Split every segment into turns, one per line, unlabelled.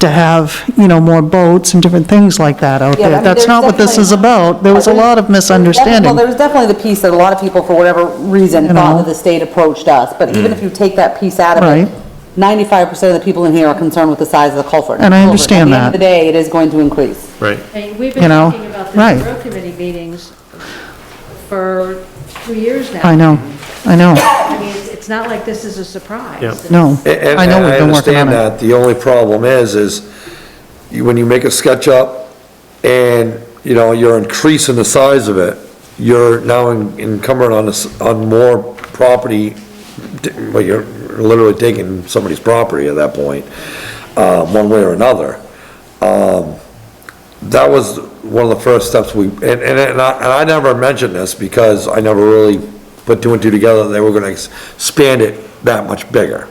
to have, you know, more boats and different things like that out
Yeah, I
there.
mean,
That's
there's
not what this is
definitely-
about. There was a lot of
Well, there
misunderstanding.
was definitely the piece that a lot of people, for whatever reason,
You
thought
know.
that the state approached us, but even if
Mm.
you take that piece out of
Right.
it, ninety-five percent of the people in here are concerned with the size of the culvert.
And I
Culvert.
understand
At the end of the
that.
day, it is going to increase.
Right.
Hey, We've been
You know,
talking about
right.
this road committee meetings for two years now.
I know, I know,
I mean, it's not like this is a surprise.
Yeah.
no.
And-
I know
and
we've been working on
understand
it.
that. The only problem is, is you- when you make a sketch up and, you know, you're increasing the size of it, you're now en- encumbered on this, on more property, d- well, you're literally taking somebody's property at that point, uh, one way or another. Um, That was one of the first steps we, and, and and I, and I never mentioned this because I never really put two and two together, they were gonna ex- expand it that much bigger.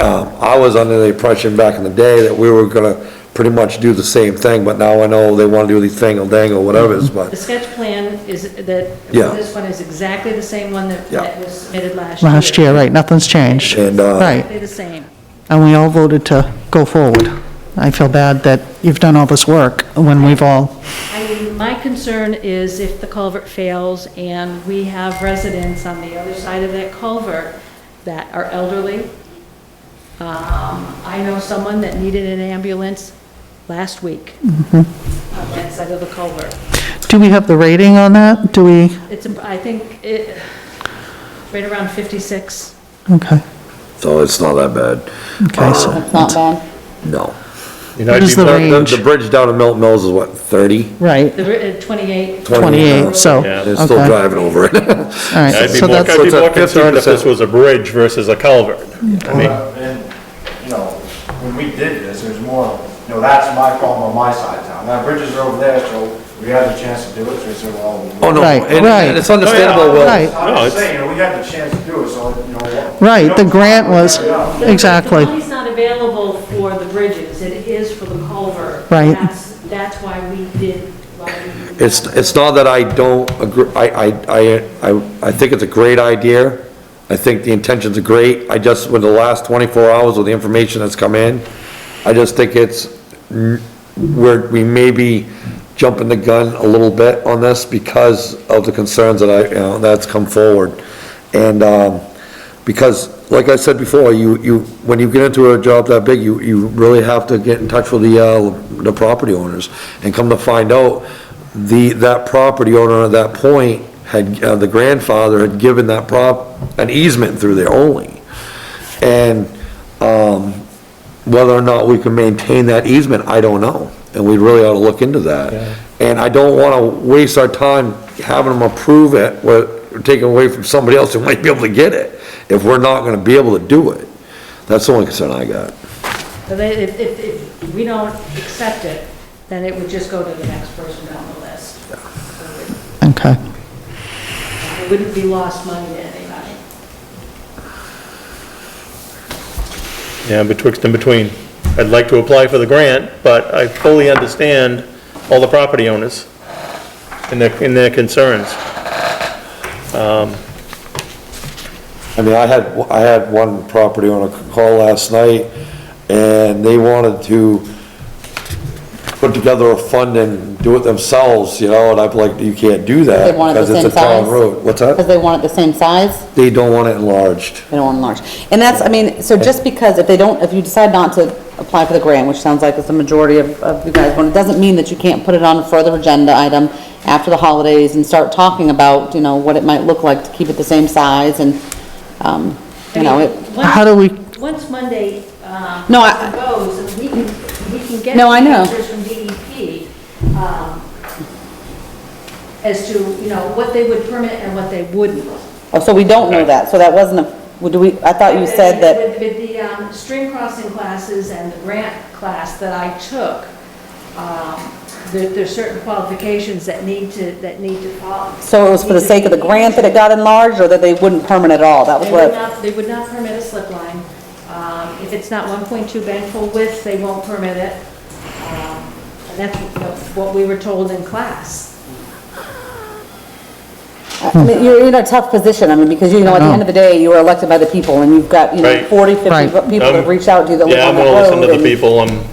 Um, I was under the impression back in the day that we were gonna pretty much do the same thing, but now I know they wanna do the thing or dang or whatever it is,
The
but,
sketch plan is, that,
Yeah.
this one is exactly the same one that
Yeah.
that was submitted last year.
Last year, right, nothing's changed.
And, uh,
Right,
Exactly the same.
and we all voted to go forward. I feel bad that you've done all this work when we've all,
I mean, my concern is if the culvert fails and we have residents on the other side of that culvert that are elderly. Um, I know someone that needed an ambulance last week
Mm-hmm.
on that side of the culvert.
do we have the rating on that? Do we,
It's, I think, it, right around 56.
okay,
so it's not that bad. Um,
okay, so,
That's not bad.
No.
And I'd
What is
be-
the
The- The,
range?
the bridge down to Milton Mills is what, thirty?
right,
The ri- uh, 28.
28, so,
Yeah.
They're still
okay.
driving over it.
all right.
I'd be
so
more,
that's-
I'd be more concerned if
50%.
this was a bridge versus a culvert. I mean,
Well, And, you know, when we did this, there's more, you know, that's my problem on my side of town. Now, bridges are over there, so we had the chance to do it, so we said, well. we-
Oh, no,
Right,
and-
right.
and it's understandable, Will.
Right.
No,
I'm just
it's-
saying, you know, we had the chance to do it, so, you know. what-
Right, the grant was,
Yeah.
exactly,
The money's not available for the bridges, it is for the culvert.
Right.
That's, that's why we did, why we.
It's, it's not that I don't agree, I, I, I, I- I think it's a great idea. I think the intentions are great. I just, with the last 24 hours with the information that's come in, I just think it's, n- we're, we may be jumping the gun a little bit on this because of the concerns that I, you know, that's come forward. And, um, because, like I said before, you, you, when you get into a job that big, you, you really have to get in touch with the, uh, the property owners. And come to find out, the, that property owner at that point had, uh, the grandfather had given that prop, an easement through there only. And, um, whether or not we can maintain that easement, I don't know, and we really ought to look into that. And I don't wanna waste our time having them approve it, or taking away from somebody else who might be able to get it, if we're not gonna be able to do it. That's the only concern I got.
So they- If, if, if we don't accept it, then it would just go to the next person down the list. So
okay.
It it wouldn't be lost money to anybody.
yeah, betwixt and between. I'd like to apply for the grant, but I fully understand all the property owners and their, and their concerns.
I mean, I had, I had one property owner call last night, and they wanted to put together a fund and do it themselves, you know, and I'm like, you can't do that,
They want it
because
the
it's
same
a town
size?
road. What's
Because
that?
they want it the same size,
They don't want it enlarged.
they don't want large. And that's, I mean, so just because if they don't, if you decide not to apply for the grant, which sounds like it's the majority of, of you guys, want, it doesn't mean that you can't put it on a further agenda item after the holidays and start talking about, you know, what it might look like to keep it the same size and, um, you know, it.
Once-
How do we-
Once Monday, um,
No, I-
goes, we can, we can get.
No, I know.
Pictures from DEP, um, as to, you know, what they would permit and what they wouldn't.
Oh, so we don't know that, so that wasn't a, well, do we, I thought you said that,
With, with the, um, stream crossing classes and the grant class that I took, um, there, there's certain qualifications that need to, that need to follow.
so it was for the sake of the grant that it got enlarged, or that they wouldn't permit it at all, that was
They would
what,
not, they would not permit a slip line. Um, If it's not 1.2 bank full width, they won't permit it. Um, And that's what- what we were told in class.
I mean, you're in a tough position, I mean, because you know, at the end of the day, you are elected by the people, and you've got, you know,
Right.
40, 50
Right.
people that
Um,
reached out to you that live
Yeah,
on
I'm
the
gonna listen to
road,
the
and
people, I'm,